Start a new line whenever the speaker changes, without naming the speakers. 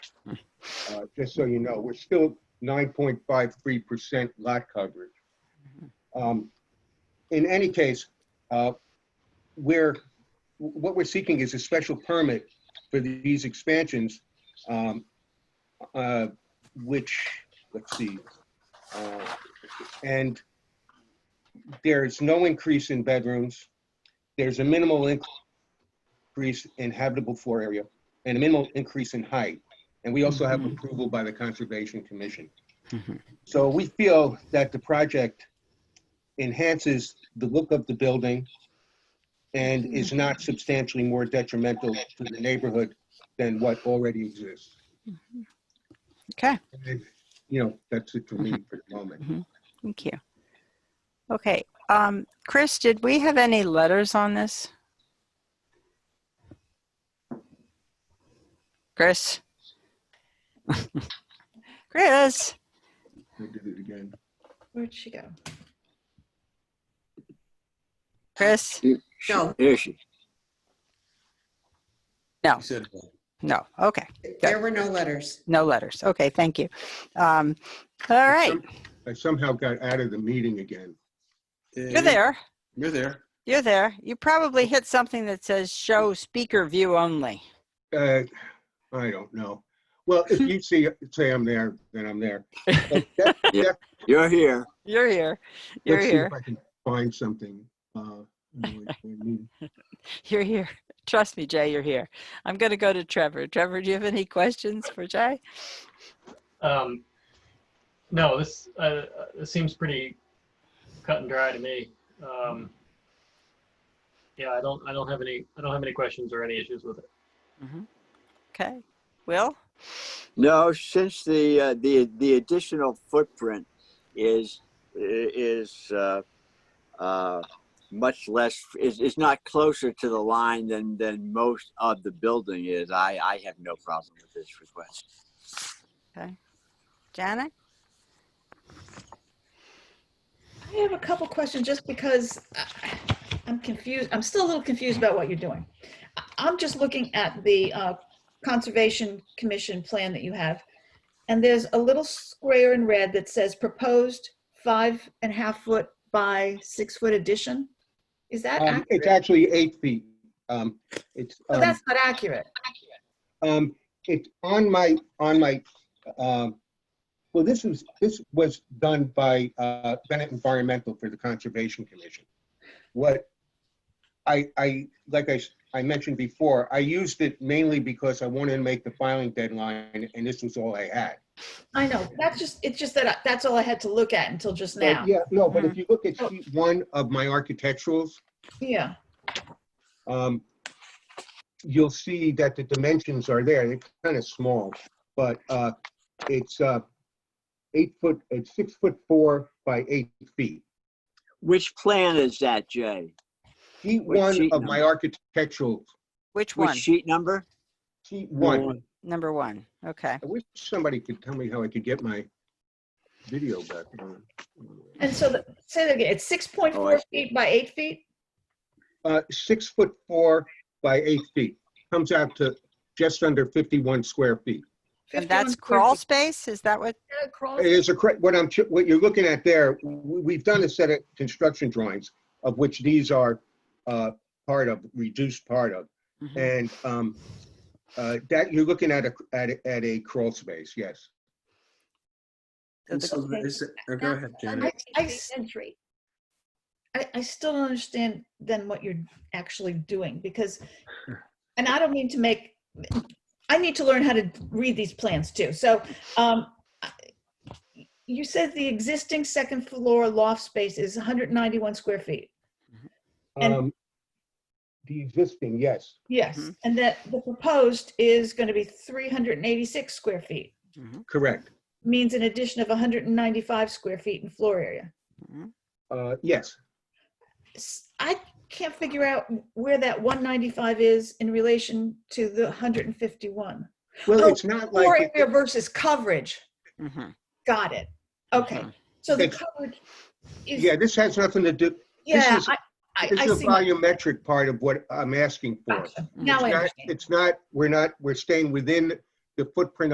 Uh, Just so you know, we're still 9.53% lot coverage. Um, In any case, uh, we're, what we're seeking is a special permit for these expansions, um, uh, which, let's see, uh, and there's no increase in bedrooms. There's a minimal increase in habitable floor area and a minimal increase in height. And we also have approval by the Conservation Commission.
Mhm.
So we feel that the project enhances the look of the building and is not substantially more detrimental to the neighborhood than what already exists.
Okay,
And, You know, that's it for me
Mm-hmm.
for the moment.
thank you. Okay, um, Chris, did we have any letters on this? Chris? Chris?
I did it again.
Where'd she go?
Chris?
No.
There she,
No,
He said, uh, "Well,
no, okay,
There were no letters.
no letters. Okay, thank you. Um, all right,
I somehow got out of the meeting again.
you're there.
You're there.
You're there. You probably hit something that says show speaker view only.
Uh, I don't know. Well, if you see, say I'm there, then I'm there. But that-
you're here.
You're here. You're
let's see
here.
If I can find something. Uh, I don't know what you mean.
You're here. Trust me, Jay, you're here. I'm going to go to Trevor. Trevor, do you have any questions for Jay?
Um, no, this uh, uh, this seems pretty cut and dry to me. Um, yeah, I don't I don't have any I don't have any questions or any issues with it.
Okay. Will?
No, since the, uh, the, the additional footprint is, is, uh, uh, much less, is, is not closer to the line than, than most of the building is, I, I have no problem with this request.
Janet?
I have a couple questions just because I- I'm confused. I'm still a little confused about what you're doing. I- I'm just looking at the uh, Conservation Commission plan that you have. And there's a little square in red that says proposed five and a half foot by six foot addition. Is that
Um, It's
accurate?
actually eight feet. Um, It's,
Oh,
No,
um,
that's not accurate.
um, it's on my, on my, um, well, this was, this was done by uh, Bennett Environmental for the Conservation Commission. What I, I, like I, s- I mentioned before, I used it mainly because I wanted to make the filing deadline and this was all I had.
I know. That's just, it's just that, I- that's all I had to look at until just
But
now.
Yeah, no, but if you look at sheet one of my architecturals,
Yeah.
um, you'll see that the dimensions are there, they're kind of small, but uh, it's uh, eight foot, it's six foot four by eight feet.
Which plan is that, Jay?
Sheet
What
one
sheet
of my
number?
architectural,
Which one?
Which sheet number?
sheet one.
Number one. Okay.
I wish somebody could tell me how I could get my video back on.
And so, the- say that again, it's six point
Oh, I
four
see.
feet by eight feet?
Uh, Six foot four by eight feet, comes out to just under 51 square feet.
And
51
that's
square
crawl
feet.
space? Is that what?
Yeah, crawl
It is a, correct- what I'm, ch- what you're looking at there, w- we've done a set of construction drawings, of which these are uh, part of, reduced part of.
Mhm.
And um, uh, that, you're looking at a, at a- at a crawl space, yes.
So
And
the-
so there is- oh, Go ahead, Janet.
I s- I, I still don't understand then what you're actually doing because, and I don't mean to make, I need to learn how to read these plans too. So, um, I- you said the existing second floor loft space is 191 square feet. And-
Um, The existing, yes.
Yes.
Mm-hmm.
Mhm.
And that the proposed is going to be 386 square feet,
Mhm.
Correct.
means an addition of 195 square feet in floor area.
Mhm.
Uh, Yes.
s- I can't figure out where that 195 is in relation to the 151.
Well,
Oh,
it's not
Floor
like,
area versus coverage.
Mhm.
Got it. Okay.
Mhm.
So the
It's-
coverage is,
Uh-huh. yeah, this has nothing to do,
yeah,
is-
I, I
this
I
is a
see. my-
volumetric part of what I'm asking for.
gotcha. Now
It's
I
not-
understand.
It's not, we're not, we're staying within the footprint